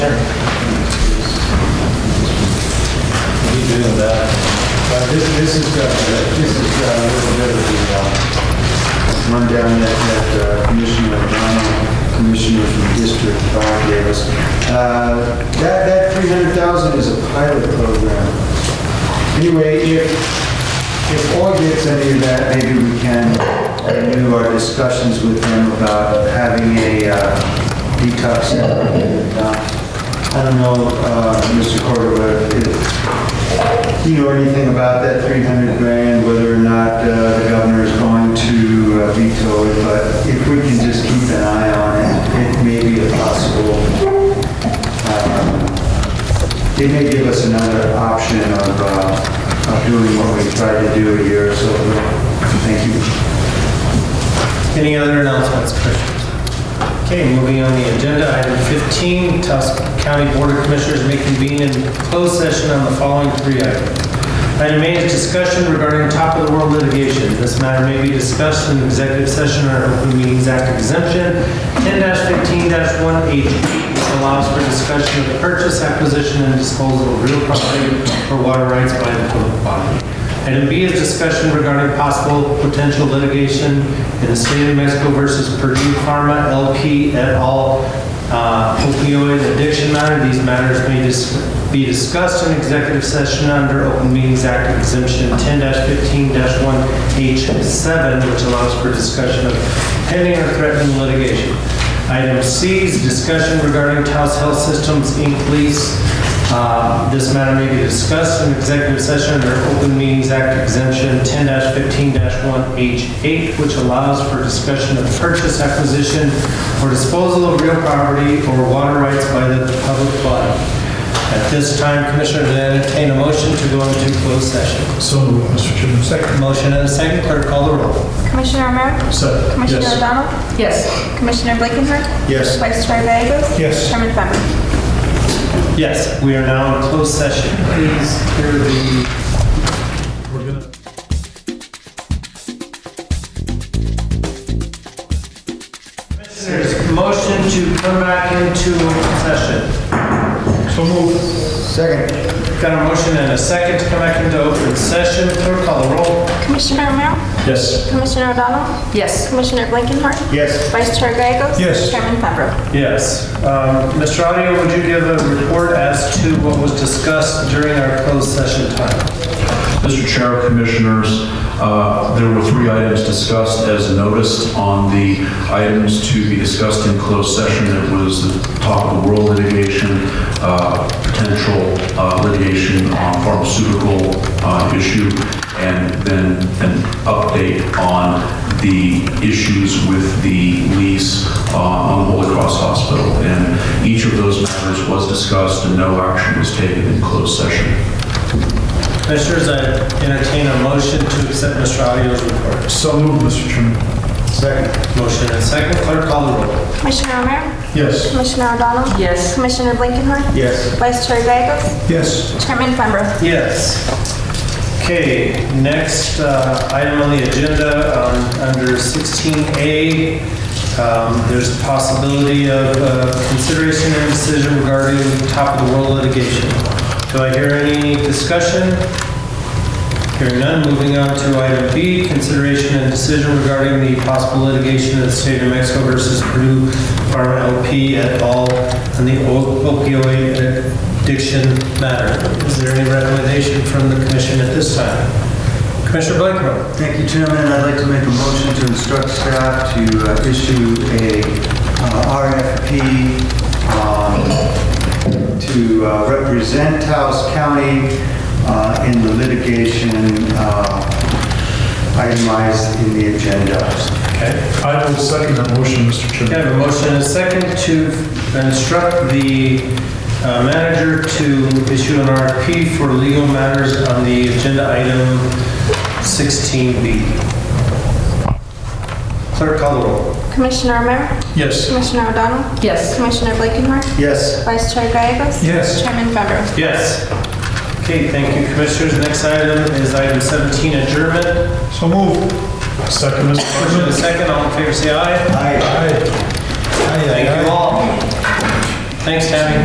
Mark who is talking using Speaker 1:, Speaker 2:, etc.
Speaker 1: He did that. But this, this is, uh, this is uh, a little bit of the uh, rundown that that uh, Commissioner Romano, Commissioner from District 5 gave us. Uh, That, that 300,000 is a pilot program. Anyway, if, if all gets any of that, maybe we can renew our discussions with them about having a uh, detox. Uh, I don't know, uh, Mr. Cordova, if you know anything about that 300 grand, whether or not uh, the governor is going to uh, veto it, but if we can just keep an eye on it, it may be a possible it may give us another option of, uh, of doing what we tried to do a year or so ago. Thank you.
Speaker 2: Any other announcements, Commissioners? Okay, moving on the agenda, item 15, Taos County Board of Commissioners may convene in closed session on the following three items. Item A is discussion regarding top-of-the-world litigation. This matter may be discussed in executive session under Open Meetings Act exemption 10-15-1H, which allows for discussion of the purchase, acquisition, and disposal of real property or water rights by the public body. Item B is discussion regarding possible potential litigation in the state of Mexico versus Purdue Pharma LP et al. uh, opioid addiction matter. These matters may dis- be discussed in executive session under Open Meetings Act exemption 10-15-1H7, which allows for discussion of pending or threatened litigation. Item C is discussion regarding Taos Health Systems Inc. lease uh, This matter may be discussed in executive session under Open Meetings Act exemption 10-15-1H8, which allows for discussion of purchase, acquisition, or disposal of real property or water rights by the public body. At this time, Commissioners, I entertain a motion to go into closed session.
Speaker 3: So moved, Mr. Chairman. Second.
Speaker 2: Motion and a second, clerk call the roll.
Speaker 4: Commissioner Romero?
Speaker 3: Second.
Speaker 4: Commissioner
Speaker 3: Yes.
Speaker 4: O'Donnell?
Speaker 5: Yes.
Speaker 4: Commissioner Blakenhart?
Speaker 1: Yes.
Speaker 4: Vice Chair Gagos?
Speaker 3: Yes.
Speaker 4: Chairman Farrow?
Speaker 2: Yes, we are now in closed session. Please clear the
Speaker 3: We're gonna-
Speaker 2: Commissioners, motion to come back into open session.
Speaker 3: So moved.
Speaker 1: Second.
Speaker 2: Got a motion and a second to come back into open session. Clerk call the roll.
Speaker 4: Commissioner Romero?
Speaker 3: Yes.
Speaker 4: Commissioner O'Donnell?
Speaker 5: Yes.
Speaker 4: Commissioner Blakenhart?
Speaker 1: Yes.
Speaker 4: Vice Chair Gagos?
Speaker 3: Yes.
Speaker 4: Chairman Farrow?
Speaker 2: Yes. Um, Mr. Audio, would you give a report as to what was discussed during our closed session time?
Speaker 6: Mr. Chair, Commissioners, uh, there were three items discussed as noticed on the items to be discussed in closed session. It was the top of the world litigation, uh, potential uh, litigation on pharmaceutical uh, issue, and then an update on the issues with the lease uh, on Holy Cross Hospital. And each of those matters was discussed and no action was taken in closed session.
Speaker 2: Commissioners, I entertain a motion to accept Mr. Audio's report.
Speaker 3: So moved, Mr. Chairman.
Speaker 1: Second.
Speaker 2: Motion and second. Clerk call the roll.
Speaker 4: Commissioner Romero?
Speaker 3: Yes.
Speaker 4: Commissioner O'Donnell?
Speaker 5: Yes.
Speaker 4: Commissioner Blakenhart?
Speaker 1: Yes.
Speaker 4: Vice Chair Gagos?
Speaker 3: Yes.
Speaker 4: Chairman Farrow?
Speaker 2: Yes. Okay, next uh, item on the agenda, um, under 16A, um, there's a possibility of uh, consideration and decision regarding top-of-the-world litigation. Do I hear any discussion? Hearing none, moving on to item B, consideration and decision regarding the possible litigation of the state of Mexico versus Purdue Pharma LP et al. on the opioid addiction matter. Is there any recommendation from the commission at this time? Commissioner Blakenhart.
Speaker 1: Thank you, Chairman. I'd like to make a motion to instruct staff to uh, issue a uh, RFP um, to uh, represent Taos County uh, in the litigation uh, itemized in the agenda.
Speaker 2: Okay.
Speaker 3: I will second that motion, Mr.
Speaker 2: Okay,
Speaker 3: Chairman.
Speaker 2: I have a motion and a second to instruct the uh, manager to issue an RFP for legal matters on the agenda item 16B. Clerk call the roll.
Speaker 4: Commissioner Romero?
Speaker 3: Yes.
Speaker 4: Commissioner O'Donnell?
Speaker 5: Yes.
Speaker 4: Commissioner Blakenhart?
Speaker 1: Yes.
Speaker 4: Vice Chair Gagos?
Speaker 3: Yes.
Speaker 4: Chairman Farrow?
Speaker 2: Yes. Okay, thank you, commissioners. Next item is item 17, adjournment.
Speaker 3: So moved. Second, Mr.
Speaker 2: Motion
Speaker 3: Chairman.
Speaker 2: and a second, all in favor, say aye.
Speaker 3: Aye. Aye, aye,
Speaker 2: Thank
Speaker 3: aye.
Speaker 2: you all. Thanks, Tammy.